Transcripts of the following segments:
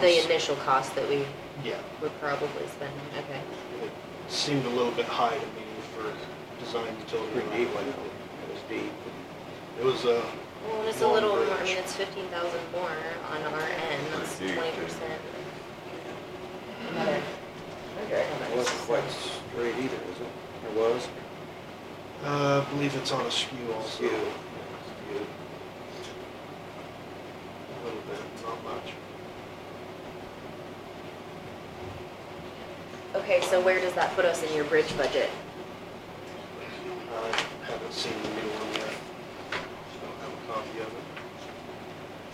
The initial cost that we Yeah, would probably spend, okay. it seemed a little bit high to me for design utility. Pretty deep, wasn't it? It was deep. It was, uh, Well, and it's a Long little, more. I bridge. mean, it's fifteen thousand more on our end, that's Pretty deep, twenty percent. Another hundred. It wasn't quite straight either, was it? It was? uh, I believe it's on a skew also. Skew. Skew. A little bit, not much. Okay, so where does that put us in your bridge budget? I haven't seen the new one yet. so I don't have a copy of it.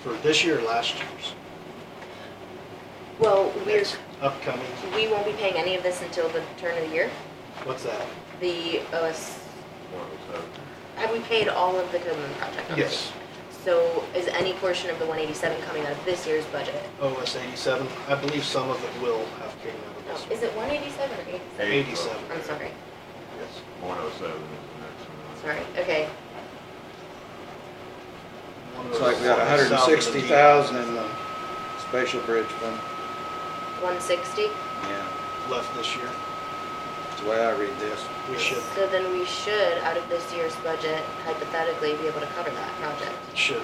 For this year, or last year's. Well, we're, Next Upcoming, we won't be paying any of this until the turn of the year, what's that? the OS, What was that? have we paid all of the Goodman project? already? Yes, So is any portion of the one eighty-seven coming out of this year's budget? OS eighty-seven. I believe some of it will have came out of No, this. is it one eighty-seven or eighty-seven? Eight. Eighty-seven. I'm sorry, Yes. One oh seven is the next one. sorry, okay. Looks like we got One was hundred and sixty thousand in the special bridge fund. One sixty? Yeah, Left this year. that's the way I read this. We should, So then we should, out of this year's budget, hypothetically, be able to cover that project should.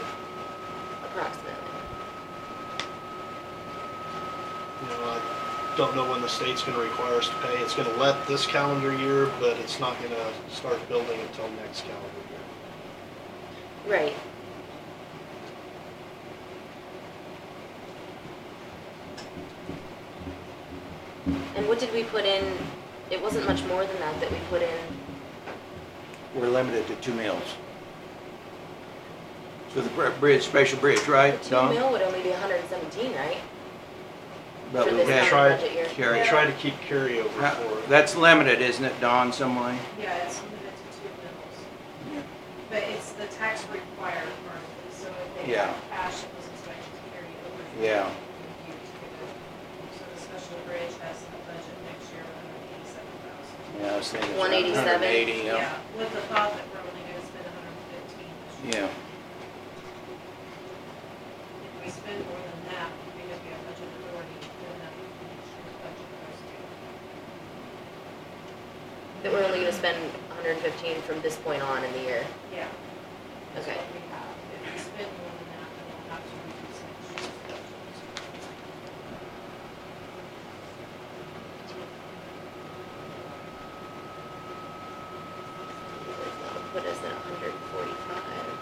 approximately. You know, I don't know when the state's gonna require us to pay. It's gonna let this calendar year, but it's not gonna start building until next calendar year. Right. And what did we put in, it wasn't much more than that that we put in, We're limited to two mills. So the br- bridge, special bridge, right, two Don? mil would only be hundred and seventeen, right? But For we this had- Try- current budget year. Carry. We try to keep carryover for it. That's limited, isn't it, Don, some way? Yeah, it's limited to two mills. But it's the tax required part, so if they Yeah. have cash, it was expected to carry over. Yeah. So the special bridge has a budget next year of hundred and eighty-seven thousand. Yeah, I was thinking. 187? Hundred eighty, yeah. Yeah, with the thought that we're only gonna spend hundred and fifteen this year. Yeah, If we spend more than that, because we have budget authority, then that would be next year's budget goes to. That we're only gonna spend hundred and fifteen from this point on in the year, Yeah. that's okay. what we have. If we spend more than that, then we'll have to reduce next year's budget. That'll put us at hundred and forty-five.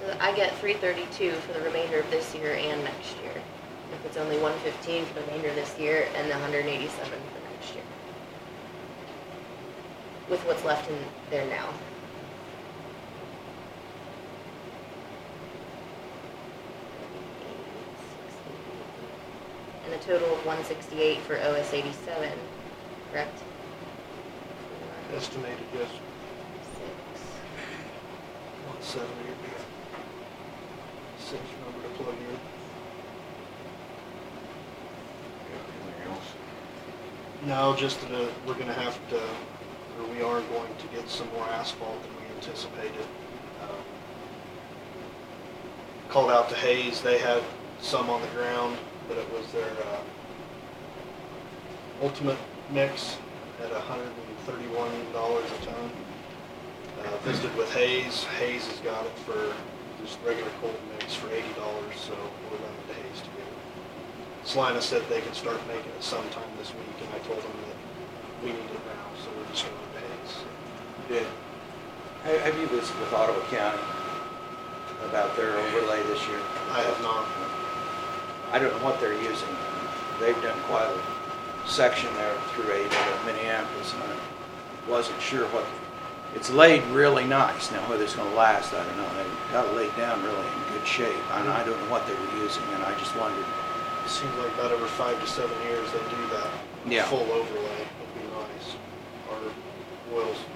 So I get three thirty-two for the remainder of this year and next year. If it's only one fifteen for the remainder of this year and the hundred and eighty-seven for next year. With what's left in there now. And a total of one sixty-eight for OS eighty-seven, correct? Four, six, Estimated, yes, one seventy would be a safe number to plug in. Anything else? No, just that uh, we're gonna have to, or we are going to get some more asphalt than we anticipated. Um, Called out to Hayes, they had some on the ground, but it was their uh, ultimate mix at hundred and thirty-one dollars a ton. Uh, Visited with Hayes, Hayes has got it for just regular cold mix for eighty dollars, so we're running to Hayes to get it. Salina said they could start making it sometime this week, and I told them that we need it now, so we're just going to Hayes. you did. Have, have you visited with Ottawa County about their overlay this year? I have not, I don't know what they're using. They've done quite a section there through eight of Minneapolis, and I wasn't sure what, it's laid really nice. Now, whether it's gonna last, I don't know. They got it laid down really in good shape, and I don't know what they were using, and I just wondered. it seems like about every five to seven years they do that. Yeah. Full overlay, it'd be nice. Our oil's